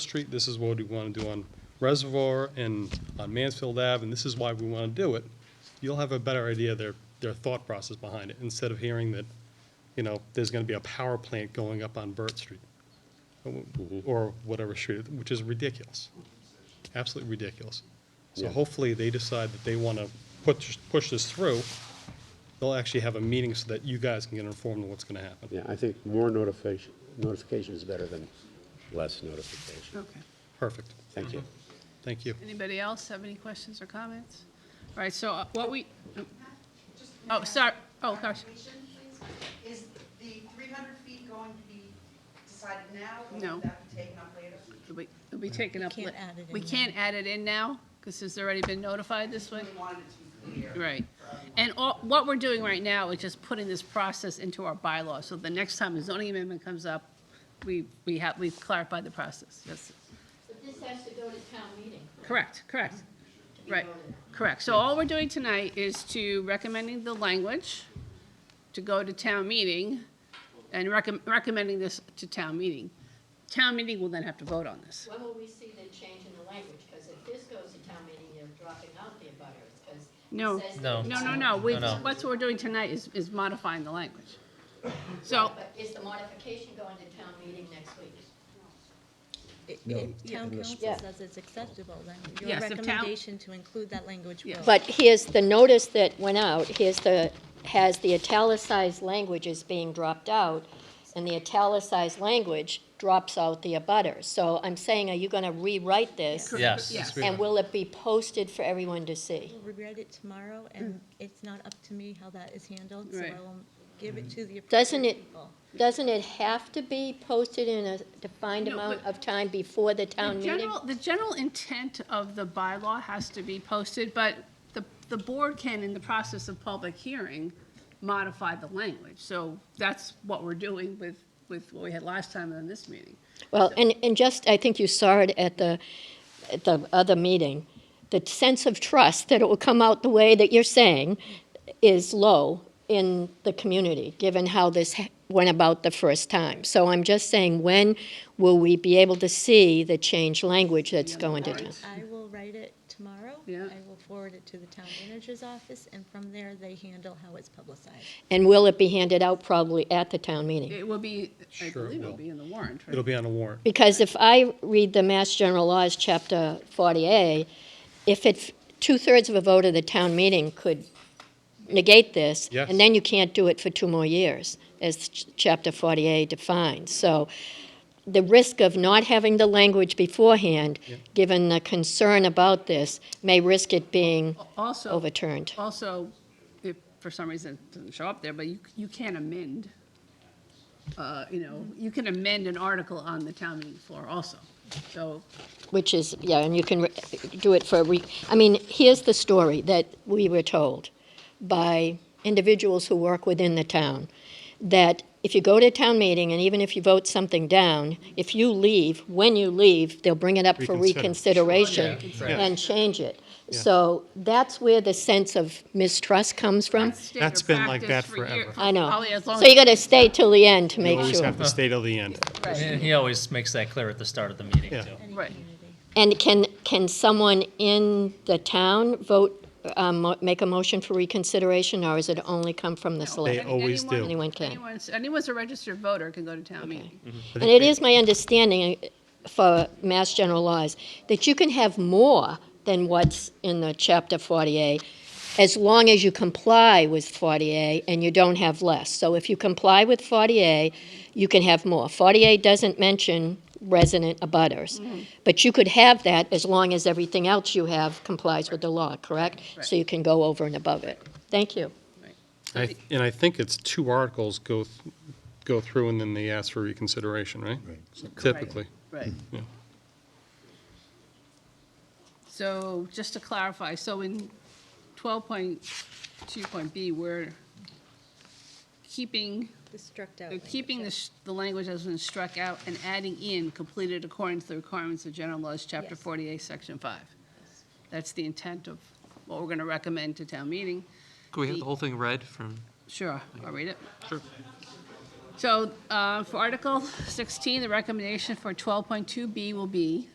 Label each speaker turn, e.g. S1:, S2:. S1: Street, this is what we want to do on Reservoir and on Mansfield Ave, and this is why we want to do it, you'll have a better idea of their, their thought process behind it, instead of hearing that, you know, there's going to be a power plant going up on Burt Street,
S2: Mm-hmm.
S1: or whatever street, which is ridiculous, absolutely ridiculous. So hopefully, they decide that they want to push, push this through, they'll actually have a meeting so that you guys can get informed on what's going to happen.
S3: Yeah, I think more notification, notification is better than less notification.
S4: Okay.
S1: Perfect,
S3: Thank you.
S1: thank you.
S4: Anybody else have any questions or comments? All right, so uh, what we, oh, sorry, oh, gosh.
S5: Clarification, please. Is the 300 feet going to be decided now? or
S4: No.
S5: will that be taken up later?
S4: It'll be- it'll be taken up.
S6: Can't
S4: la-
S6: add it in
S4: We
S6: now.
S4: can't add it in now, because it's already been notified this way?
S5: We wanted it to be clear.
S4: Right. And all, what we're doing right now is just putting this process into our bylaw, so the next time a zoning amendment comes up, we, we have, we've clarified the process, yes.
S7: But this has to go to town meeting.
S4: Correct, correct. Right, correct. So all we're doing tonight is to recommending the language to go to town meeting and recom- recommending this to town meeting. Town meeting will then have to vote on this.
S7: When will we see the change in the language? Because if this goes to town meeting, you're dropping out the abutters, because.
S4: No.
S8: No.
S4: No, no, no, we,
S8: No, no.
S4: what's we're doing tonight is, is modifying the language. So,
S7: But is the modification going to town meeting next week?
S6: If Town council
S9: Yeah.
S6: says it's acceptable, then your
S4: Yes, if town-
S6: recommendation to include that language
S4: Yes.
S6: will.
S9: But here's the notice that went out, here's the, has the italicized language is being dropped out, and the italicized language drops out the abutters. So I'm saying, are you gonna rewrite this?
S8: Yes.
S4: Yes.
S9: And will it be posted for everyone to see?
S6: We'll read it tomorrow, and it's not up to me how that is handled, so
S4: Mm. Right.
S6: I will give it to the
S9: Doesn't
S6: appropriate
S9: it-
S6: people.
S9: Doesn't it have to be posted in a defined
S4: No,
S9: amount
S4: but-
S9: of time before the
S4: the
S9: town meeting?
S4: general, the general intent of the bylaw has to be posted, but the, the board can, in the process of public hearing, modify the language. So that's what we're doing with, with what we had last time in this meeting.
S9: Well, and, and just, I think you saw it at the, at the other meeting, the sense of trust that it will come out the way that you're saying is low in the community, given how this ha- went about the first time. So I'm just saying, when will we be able to see the changed language that's going to town?
S6: I will write it tomorrow.
S4: Yeah.
S6: I will forward it to the town manager's office, and from there, they handle how it's publicized.
S9: And will it be handed out probably at the town meeting?
S4: It will be, I
S1: Sure it
S4: believe it'll
S1: will.
S4: be in the warrant, right?
S1: It'll be on a warrant.
S9: Because if I read the Mass General Laws, Chapter 40A, if it, two-thirds of a vote of the town meeting could negate this,
S1: Yes.
S9: and then you can't do it for two more years, as ch- Chapter 40A defines. So the risk of not having the language beforehand, given the concern about this, may risk it being
S4: Also,
S9: overturned.
S4: also, if for some reason it doesn't show up there, but you, you can amend, uh, you know, you can amend an article on the town meeting floor also. So
S9: Which is, yeah, and you can re- do it for a week. I mean, here's the story that we were told by individuals who work within the town, that if you go to a town meeting and even if you vote something down, if you leave, when you leave, they'll bring it up for
S1: Reconsider.
S9: reconsideration and change it. So that's where the sense of mistrust comes from.
S4: standard
S2: That's been like
S4: practice
S2: that
S4: for year-
S2: forever.
S9: I know.
S4: Probably as long
S9: So you
S4: as-
S9: gotta stay till the end to make
S2: Always
S9: sure.
S2: have to stay till the end.
S4: Right,
S8: And he always makes that clear at the start of the meeting,
S2: Yeah.
S8: too.
S4: right.
S9: And can, can someone in the town vote, um, mo- make a motion for reconsideration, or is it only come from the
S2: They
S9: select?
S2: always do.
S9: Anyone can.
S4: Anyone's, anyone's a registered voter can go to town meeting.
S9: And it is my understanding uh, for Mass General laws that you can have more than what's in the Chapter 48, as long as you comply with 48 and you don't have less. So if you comply with 48, you can have more. 48 doesn't mention resident abutters, but you could have that as long as everything else you have complies with the law, correct? So you can go over and above it. Thank you.
S1: I th- And I think it's two articles go, th- go through and then they ask for reconsideration, right? Typically.
S4: Right.
S1: Yeah.
S4: So just to clarify, so in twelve point two point B, we're keeping
S6: The struck out
S4: They're
S6: language.
S4: keeping the, sh- the language as been struck out and adding in completed according to the requirements of general laws, chapter
S6: Yes.
S4: forty-eight, section five. That's the intent of what we're gonna recommend to town meeting.
S10: Could we have the whole thing read from?
S4: Sure, I'll read it. Sure. So uh, for Article 16, the recommendation for 12.2B will be